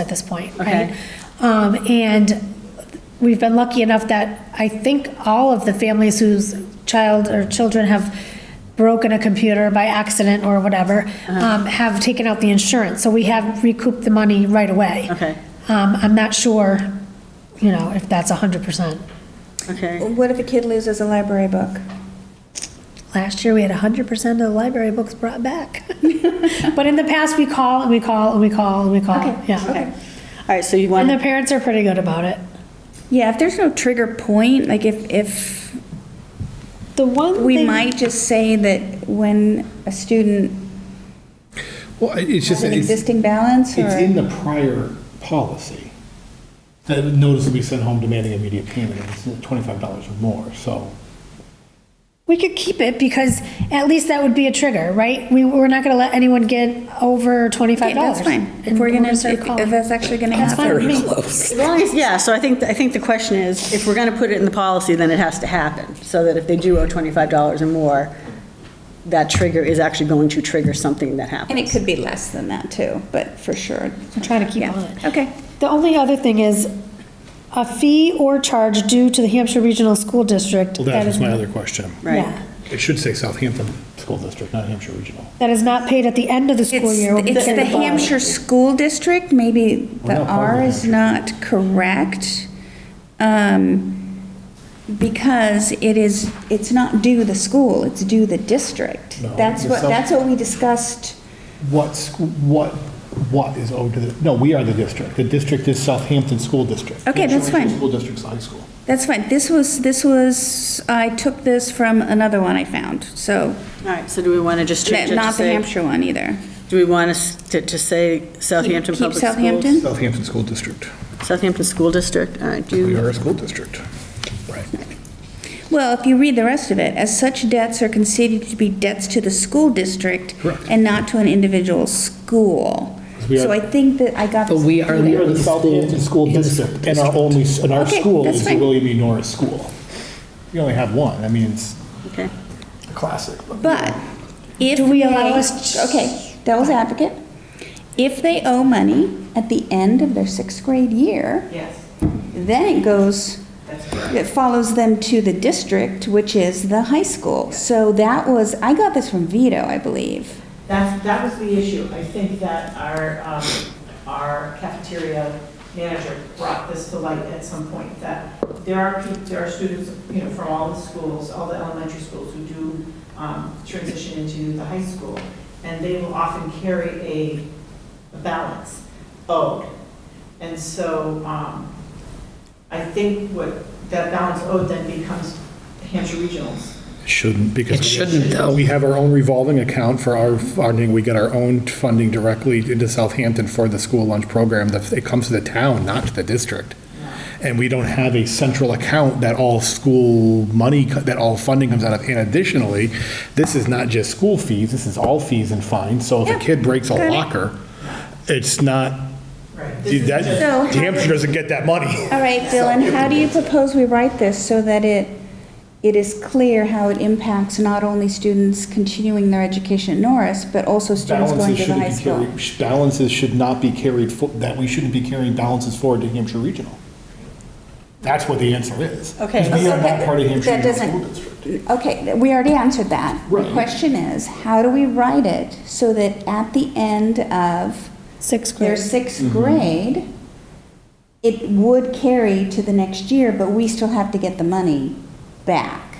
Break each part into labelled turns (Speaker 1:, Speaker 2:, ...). Speaker 1: at this point,
Speaker 2: Okay.
Speaker 1: right? Um, and we've been lucky enough that I think all of the families whose child or children have broken a computer by accident or whatever,
Speaker 2: Uh-huh.
Speaker 1: um, have taken out the insurance, so we have recouped the money right away.
Speaker 2: Okay.
Speaker 1: Um, I'm not sure, you know, if that's hundred percent.
Speaker 3: Oh.
Speaker 2: Okay.
Speaker 4: What if a kid loses a library book?
Speaker 1: Last year, we had hundred percent of the library books brought back. But in the past, we call and we call and we call and we call, yeah.
Speaker 2: Okay. All right, so you
Speaker 1: And
Speaker 2: want,
Speaker 1: the parents are pretty good about it.
Speaker 3: Yeah, if there's no trigger point, like if, if,
Speaker 1: The one
Speaker 3: we
Speaker 1: thing-
Speaker 3: might just say that when a student
Speaker 5: Well, it- it's
Speaker 3: has
Speaker 5: just,
Speaker 3: an
Speaker 5: it's,
Speaker 3: existing balance
Speaker 5: it's in
Speaker 3: or,
Speaker 5: the prior policy. That notice will be sent home demanding immediate payment, and it's twenty-five dollars or more, so.
Speaker 1: We could keep it because at least that would be a trigger, right? We, we're not gonna let anyone get over twenty-five
Speaker 3: Yeah,
Speaker 1: dollars.
Speaker 3: that's fine. If we're gonna, if if that's actually gonna
Speaker 1: That's fine
Speaker 3: happen.
Speaker 1: with me.
Speaker 2: as long as, yeah, so I think, I think the question is, if we're going to put it in the policy, then it has to happen, so that if they do owe $25 or more, that trigger is actually going to trigger something that happens.
Speaker 3: And it could be less than that too, but for sure.
Speaker 1: I'm trying to keep
Speaker 3: Yeah.
Speaker 1: on it.
Speaker 3: Okay.
Speaker 1: The only other thing is a fee or charge due to the Hampshire Regional School District.
Speaker 5: Well, that
Speaker 1: that
Speaker 5: was
Speaker 1: is-
Speaker 5: my other question.
Speaker 2: Right.
Speaker 1: yeah,
Speaker 5: It should say Southampton School District, not Hampshire Regional.
Speaker 1: That is not paid at the end of the school
Speaker 3: It's,
Speaker 1: year. will be
Speaker 3: it's
Speaker 1: paid
Speaker 3: the
Speaker 1: at bottom.
Speaker 3: Hampshire School District, maybe
Speaker 5: We're
Speaker 3: the
Speaker 5: not part of
Speaker 3: R
Speaker 5: the
Speaker 3: is not correct. um, Because it is, it's not due the school, it's due the district.
Speaker 5: No,
Speaker 3: That's
Speaker 5: the
Speaker 3: what,
Speaker 5: self-
Speaker 3: that's what we discussed.
Speaker 5: What, sc- what, what is owed to the, no, we are the district. The district is Southampton School District.
Speaker 3: Okay, that's
Speaker 5: Hampshire Regional
Speaker 3: fine.
Speaker 5: School District's high school.
Speaker 3: That's fine. This was, this was, I took this from another one I found, so,
Speaker 2: All right, so do we want to just change it to
Speaker 3: not the
Speaker 2: say,
Speaker 3: Hampshire one either.
Speaker 2: do we want us to, to say Southampton
Speaker 3: Keep keep
Speaker 2: Public Schools?
Speaker 3: Southampton?
Speaker 5: Southampton School District.
Speaker 2: Southampton School District, all right, do you,
Speaker 5: a school district. Right.
Speaker 3: Well, if you read the rest of it, as such debts are considered to be debts to the school district
Speaker 5: Correct.
Speaker 3: and not to an individual school.
Speaker 5: We are-
Speaker 3: So I think that I got.
Speaker 6: But
Speaker 3: this
Speaker 6: we are
Speaker 3: through
Speaker 6: the
Speaker 5: We
Speaker 3: there.
Speaker 5: are the Southampton School District, and our only, and our
Speaker 3: Okay,
Speaker 5: school
Speaker 3: that's
Speaker 5: is the
Speaker 3: fine.
Speaker 5: William E. Norris School. You only have one, I mean, it's
Speaker 2: okay.
Speaker 5: a classic.
Speaker 3: But if.
Speaker 1: Do we allow
Speaker 3: they-
Speaker 1: us-
Speaker 3: Okay, devil's advocate. If they owe money at the end of their sixth grade year. Yes. Then it goes, it follows them to the district, which is the high school. So that was, I got this from Vito, I believe.
Speaker 7: That's, that was the issue. I think that our, um, our cafeteria manager brought this to light at some point, that there are, peop- there are students, you know, from all the schools, all the elementary schools who do um, transition into the high school, and they will often carry a a balance owed. And so um, I think what, that balance owed then becomes Hampshire Regionals.
Speaker 5: Shouldn't, because.
Speaker 6: It shouldn't, though.
Speaker 5: We have our own revolving account for our funding, we get our own funding directly into Southampton for the school lunch program, The- it comes to the town, not to the district. And we don't have a central account that all school money, co- that all funding comes out of. And additionally, this is not just school fees, this is all fees and fines, so if a
Speaker 3: Yeah,
Speaker 5: kid breaks a
Speaker 3: got it.
Speaker 5: locker, it's not,
Speaker 7: Right. This is
Speaker 5: that,
Speaker 7: just-
Speaker 3: So-
Speaker 5: Hampshire doesn't get that money.
Speaker 3: All right, Dylan, how do you propose we write this so that it, it is clear how it impacts not only students continuing their education at Norris, but also students going to
Speaker 5: balances
Speaker 3: the
Speaker 5: shouldn't
Speaker 3: high
Speaker 5: be
Speaker 3: school?
Speaker 5: carried, sh- balances should not be carried, fo- that we shouldn't be carrying balances forward to Hampshire Regional. That's what the answer is.
Speaker 2: Okay.
Speaker 5: Because We are not part of Hampshire
Speaker 3: That
Speaker 5: Regional
Speaker 3: doesn't-
Speaker 5: School District.
Speaker 3: Okay, th- we already answered that. The
Speaker 5: Right.
Speaker 3: question is, how do we write it so that at the end of
Speaker 1: Sixth
Speaker 3: their
Speaker 1: grade.
Speaker 3: sixth
Speaker 5: Mm-hmm.
Speaker 3: grade, it would carry to the next year, but we still have to get the money back?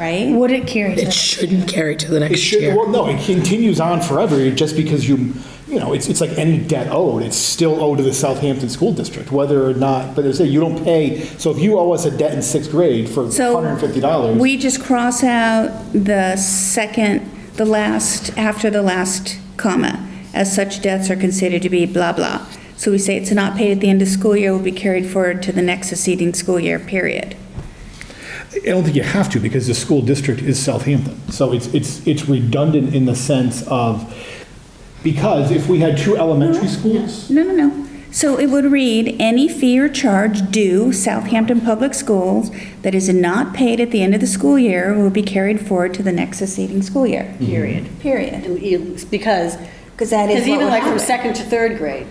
Speaker 3: Right?
Speaker 1: Would it carry? to
Speaker 6: It
Speaker 1: that?
Speaker 6: shouldn't carry to the
Speaker 5: It
Speaker 6: next
Speaker 5: should,
Speaker 6: year.
Speaker 5: well, no, it continues on forever, just because you, you know, it's, it's like any debt owed, it's still owed to the Southampton School District, whether or not, but as I say, you don't pay, so if you owe us a debt in sixth grade for
Speaker 3: So
Speaker 5: $150.
Speaker 3: we just cross out the second, the last, after the last comma, as such debts are considered to be blah, blah. So we say it's not paid at the end of school year, will be carried forward to the next succeeding school year, period.
Speaker 5: I don't think you have to because the school district is Southampton. So it's, it's, it's redundant in the sense of, because if we had two elementary schools,
Speaker 3: No, no, no. So it would read, any fee or charge due Southampton Public Schools that is not paid at the end of the school year will be carried forward to the next succeeding school year. Period. Period.
Speaker 2: And you- Because
Speaker 3: Because that is
Speaker 2: Because
Speaker 3: what
Speaker 2: even
Speaker 3: would
Speaker 2: like from
Speaker 3: happen.
Speaker 2: second to third grade,